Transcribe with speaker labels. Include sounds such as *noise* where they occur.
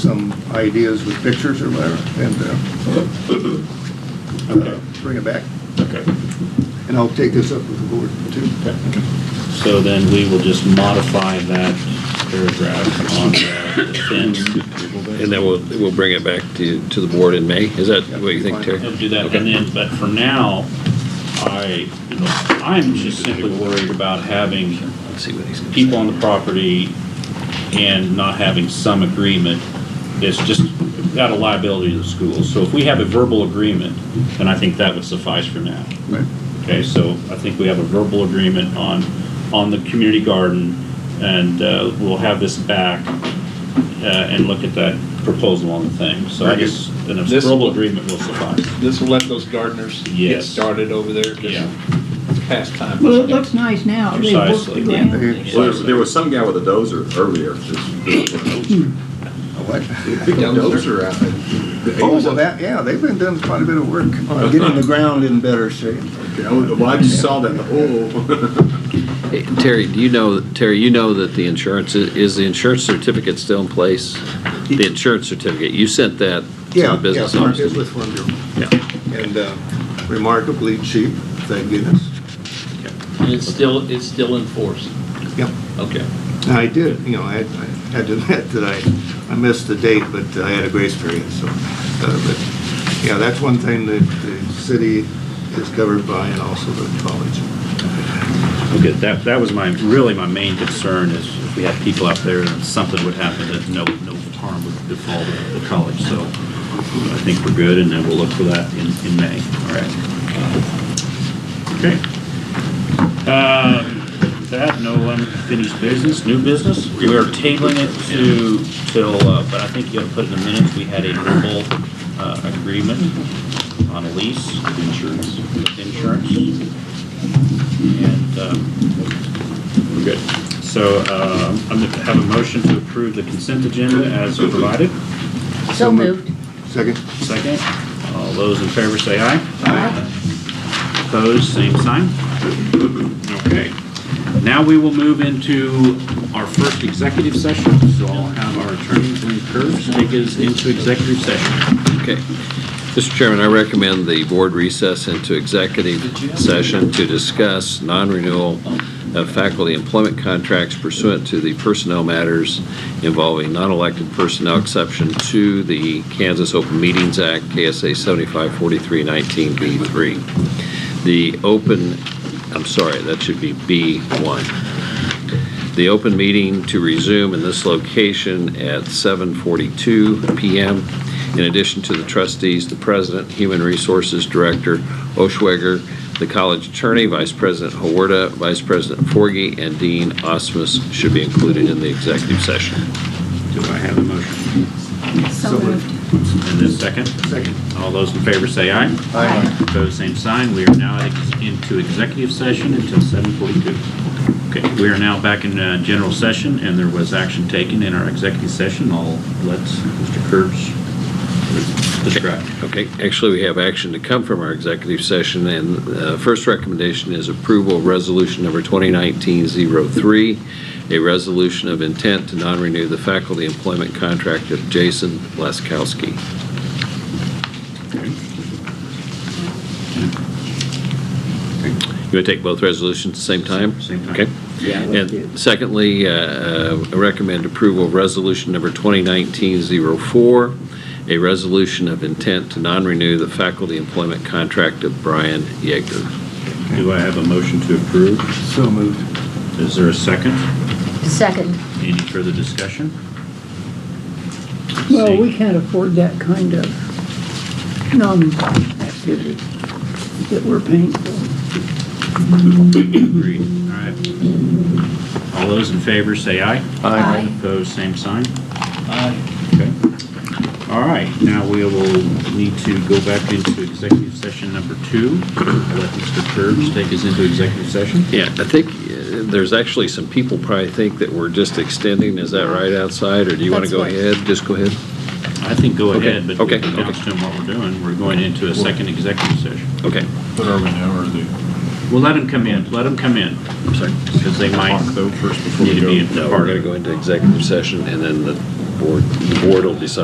Speaker 1: some ideas with pictures or whatever, and uh, uh, bring it back.
Speaker 2: Okay.
Speaker 1: And I'll take this up with the board, too.
Speaker 2: So then we will just modify that paragraph on the fence.
Speaker 3: And then we'll, we'll bring it back to, to the board in May? Is that what you think, Terry?
Speaker 2: We'll do that, and then, but for now, I, you know, I'm just simply worried about having
Speaker 3: Let's see what he's gonna say.
Speaker 2: people on the property and not having some agreement that's just got a liability to the school. So if we have a verbal agreement, then I think that would suffice for now.
Speaker 1: Right.
Speaker 2: Okay, so I think we have a verbal agreement on, on the community garden, and uh, we'll have this back uh, and look at that proposal on the thing. So I
Speaker 4: Very good.
Speaker 2: guess, then a
Speaker 4: This-
Speaker 2: verbal agreement will suffice.
Speaker 4: This will let those gardeners get
Speaker 2: Yes.
Speaker 4: started over there,
Speaker 2: Yeah.
Speaker 4: just past time.
Speaker 5: Well, it looks nice now. They worked the
Speaker 2: Precisely,
Speaker 5: ground.
Speaker 1: yeah.
Speaker 6: Well, there- there was some guy with a dozer
Speaker 1: *laughs*
Speaker 6: earlier.
Speaker 1: What?
Speaker 6: Pick a dozer out.
Speaker 1: Oh, well, that, yeah, they've been doing quite a bit of work on getting the ground in better shape.
Speaker 6: Well, I just saw that, oh.
Speaker 3: Hey, Terry, do you know, Terry, you know that the insurance, is the insurance certificate still in place? The insurance certificate, you sent that to
Speaker 1: Yeah,
Speaker 3: the
Speaker 1: yeah,
Speaker 3: business
Speaker 1: Farm- it's
Speaker 3: office?
Speaker 1: with Farm Bureau.
Speaker 3: Yeah.
Speaker 1: And uh, remarkably cheap, thank goodness.
Speaker 7: And it's still, it's still in force?
Speaker 1: Yep.
Speaker 7: Okay.
Speaker 1: And I did, you know, I had- I had to *laughs* admit that I, I missed the date, but I had a grace period, so. uh, But, yeah, that's one thing that the city is covered by and also the college.
Speaker 2: Okay, that, that was my, really my main concern is if we had people out there and something would happen, that no, no harm would befall the- the college. So I think we're good, and then we'll look for that in, in May, all right? Okay. Uh, with That, no unfinished business, new business. We are tabling it to, till, uh, but I think you ought to put in the minutes, we had a verbal uh, agreement on a lease. Insurance. Insurance. And um, we're good. So um, I'm going to have a motion to approve the consent agenda as provided.
Speaker 5: So moved.
Speaker 1: Second?
Speaker 2: Second, all those in favor say aye.
Speaker 5: Aye.
Speaker 2: Opposed, same sign. Okay. Now we will move into our first executive session. So I'll have our attorney, Glenn Curves, take us into executive session.
Speaker 3: Okay. Mr. Chairman, I recommend the board recess into executive session to discuss non-renewal of faculty employment contracts pursuant to the personnel matters involving non-elected personnel exception to the Kansas Open Meetings Act, KSA 754319B3. The open, I'm sorry, that should be B1 the open meeting to resume in this location at 7:42 PM. In addition to the trustees, the president, human resources director Oshweger, the college attorney, vice president Hawarda, vice president Forgy, and Dean Osmus should be included in the executive session.
Speaker 2: Do I have a motion?
Speaker 5: So moved.
Speaker 2: And then second?
Speaker 1: Second.
Speaker 2: All those in favor say aye.
Speaker 5: Aye.
Speaker 2: Opposed, same sign. We are now ex- into executive session until 7:42. Okay, we are now back in uh, general session, and there was action taken in our executive session. I'll let Mr. Kurtz describe.
Speaker 3: Okay, actually, we have action to come from our executive session, and uh first recommendation is approval of resolution number 2019-03, a resolution of intent to non-renew the faculty employment contract of Jason Laskowski. You want to take both resolutions at the same time?
Speaker 2: Same time.
Speaker 3: Okay. And secondly, uh, uh, I recommend approval of resolution number 2019-04, a resolution of intent to non-renew the faculty employment contract of Brian Yeager.
Speaker 2: Do I have a motion to approve?
Speaker 1: So moved.
Speaker 2: Is there a second?
Speaker 5: Second.
Speaker 2: Any further discussion?
Speaker 5: Well,
Speaker 2: Seeing-
Speaker 5: we can't afford that kind of non-activity that we're paying for.
Speaker 2: Agreed. All right. All those in favor, say aye.
Speaker 5: Aye.
Speaker 2: Opposed, same sign? Aye. All right, now we will need to go back into executive session number two. I'll Let Mr. Curbs take us into executive session.
Speaker 3: Yeah, I think uh, there's actually some people probably think that we're just extending, is that right outside, or do you want to
Speaker 5: That's
Speaker 3: go
Speaker 5: what-
Speaker 3: ahead? Just go ahead?
Speaker 2: I think go
Speaker 3: Okay,
Speaker 2: ahead, but we
Speaker 3: okay,
Speaker 2: can announce to them what we're doing. We're going into a second executive session.
Speaker 3: Okay.
Speaker 4: What are we now, or the?
Speaker 2: Well, let them come in, let them come in. I'm sorry. Because they might
Speaker 4: Though, first before
Speaker 2: need to be
Speaker 4: we
Speaker 2: in
Speaker 4: go.
Speaker 2: the
Speaker 3: No, we're
Speaker 2: part
Speaker 3: going
Speaker 2: of it.
Speaker 3: to go into executive session, and then the board, the board will decide